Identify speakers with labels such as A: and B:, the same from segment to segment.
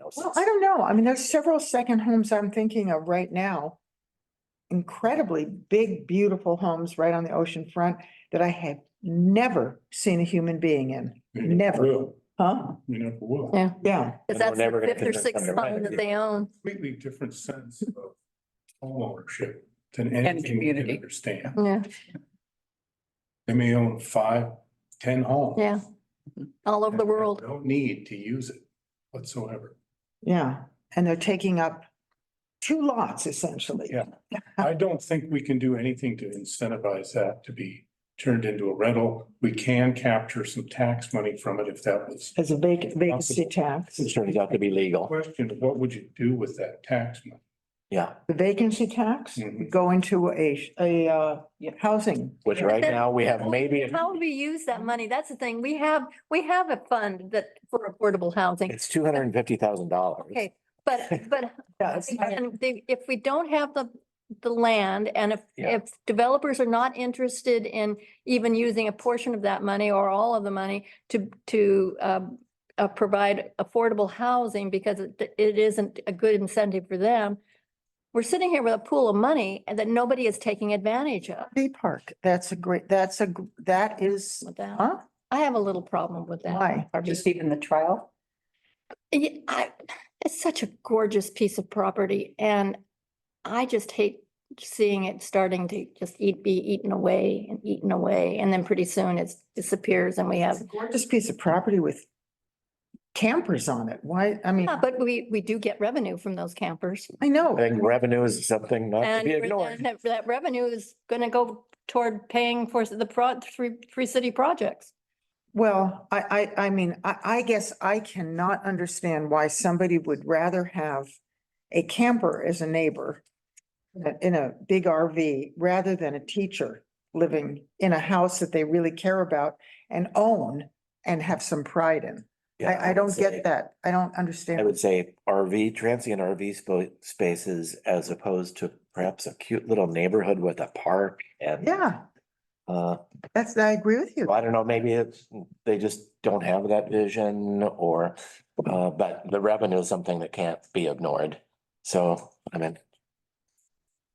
A: houses.
B: Well, I don't know. I mean, there's several second homes I'm thinking of right now. Incredibly big, beautiful homes right on the ocean front that I have never seen a human being in.
C: You
B: Never.
C: never will.
B: Huh?
C: You never will.
D: Yeah.
B: Yeah.
A: And
D: Cause
A: we're
D: that's
A: never
D: the
A: gonna
D: fifth or
A: convince
D: sixth
A: them to rent
D: home
A: it.
D: that they own.
C: Completely different sense of homeownership than anything you can
E: community.
C: understand.
D: Yeah,
C: They may own five, ten homes.
D: yeah. All over
C: and-
D: the
C: and
D: world.
C: Don't need to use it whatsoever.
B: Yeah. And they're taking up two lots essentially.
C: Yeah.
D: Uh.
C: I don't think we can do anything to incentivize that to be turned into a rental. We can capture some tax money from it if that was.
B: As a vac- vacancy tax.
A: It turns out to be legal.
C: Question, what would you do with that tax money?
A: Yeah,
B: The vacancy tax
C: Mhm.
B: go into a, a, uh, housing.
A: which right now we have maybe,
D: How would we use that money? That's the thing. We have, we have a fund that for affordable housing.
A: it's two hundred and fifty thousand dollars.
D: Okay, but, but
B: Yeah, it's not-
D: again, they- if we don't have the, the land and if,
A: Yeah.
D: if developers are not interested in even using a portion of that money or all of the money to, to, um, uh, provide affordable housing because it, it isn't a good incentive for them. We're sitting here with a pool of money and that nobody is taking advantage of.
B: City Park, that's a great, that's a, gr- that is,
D: With that,
B: huh?
D: I have a little problem with that.
B: Why?
E: Or just even the trial?
D: Yeah, I, it's such a gorgeous piece of property and I just hate seeing it starting to just eat, be eaten away and eaten away. And then pretty soon it disappears and we
B: It's
D: have,
B: a gorgeous piece of property with campers on it. Why, I mean,
D: Yeah, but we, we do get revenue from those campers.
B: I
A: I
B: know.
A: think revenue is something not to
D: And
A: be
D: we're
A: ignored.
D: then- that, that revenue is gonna go toward paying for the pro, three, three city projects.
B: Well, I, I, I mean, I, I guess I cannot understand why somebody would rather have a camper as a neighbor in a- in a big RV rather than a teacher living in a house that they really care about and own and have some pride in.
A: Yeah,
B: I, I
A: would
B: don't
A: say-
B: get that. I don't
A: I would
B: understand.
A: say RV, transient RV spa- spaces as opposed to perhaps a cute little neighborhood with a park and.
B: Yeah,
A: Uh,
B: that's, I agree with you.
A: I don't know, maybe it's, they just don't have that vision or, uh, but the revenue is something that can't be ignored. So, I mean,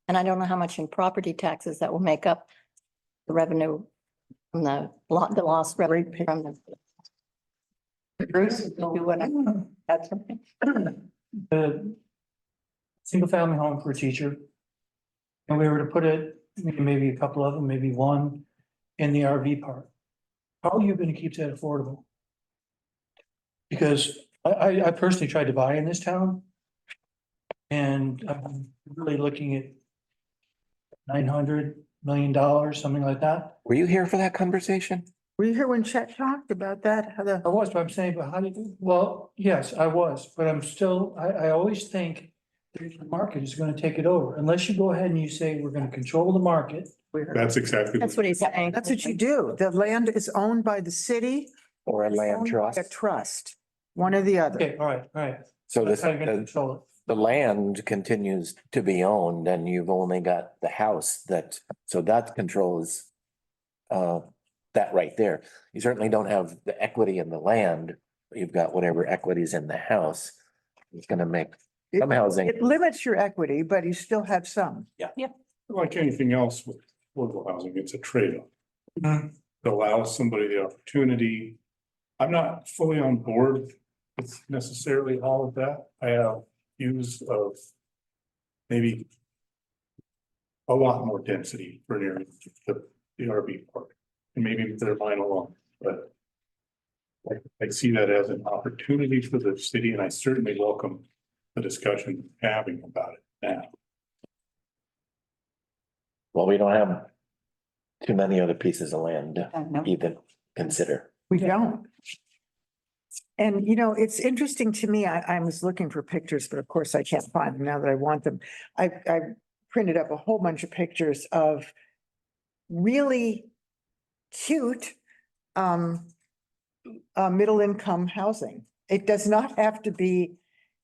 D: And I don't know how much in property taxes that will make up the revenue from the lot, the lost revenue
B: Great pick.
D: from the
E: Bruce, do you want to add something?
F: the single family home for a teacher. And we were to put it, maybe a couple of them, maybe one in the RV park. How are you gonna keep that affordable? Because I, I, I personally tried to buy in this town. And I'm really looking at nine hundred million dollars, something like that.
A: were you here for that conversation?
B: Were you here when Chet talked about that? How the,
F: I was, but I'm saying, but how do you, well, yes, I was, but I'm still, I, I always think the market is gonna take it over, unless you go ahead and you say, we're gonna control the market.
C: That's exactly.
D: That's what he's saying.
B: that's what you do. The land is owned by the city.
A: Or a
B: it's
A: land
B: owned by
A: trust?
B: A trust, one or the other.
F: Okay, all right, all right.
A: So
F: That's
A: this, uh,
F: how you're gonna
A: the,
F: control
A: the land continues to be owned and you've only got the house that, so that controls uh, that right there. You certainly don't have the equity in the land. but You've got whatever equities in the house. It's gonna make
B: It-
A: some housing.
B: It limits your equity, but you still have some.
C: Like anything else with affordable housing, it's a trade-off.
F: it.
C: It allows somebody the opportunity. I'm not fully on board with necessarily all of that. I have views of maybe a lot more density for an area, the, the RV park, and maybe they're mine alone, but I, I see that as an opportunity for the city, and I certainly welcome the discussion having about it now.
A: Well, we don't have too many other pieces of land to
E: I don't know.
A: even consider.
B: We don't. And you know, it's interesting to me, I, I was looking for pictures, but of course I can't find them now that I want them. I, I printed up a whole bunch of pictures of really cute, um, uh, middle income housing. It does not have to be,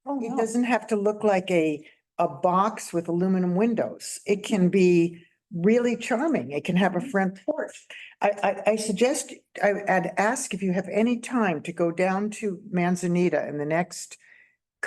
B: it doesn't have to look like a, a box with aluminum windows. It can be really charming. It can have a front porch. I, I, I suggest, I, I'd ask if you have any time to go down to Manzanita in the next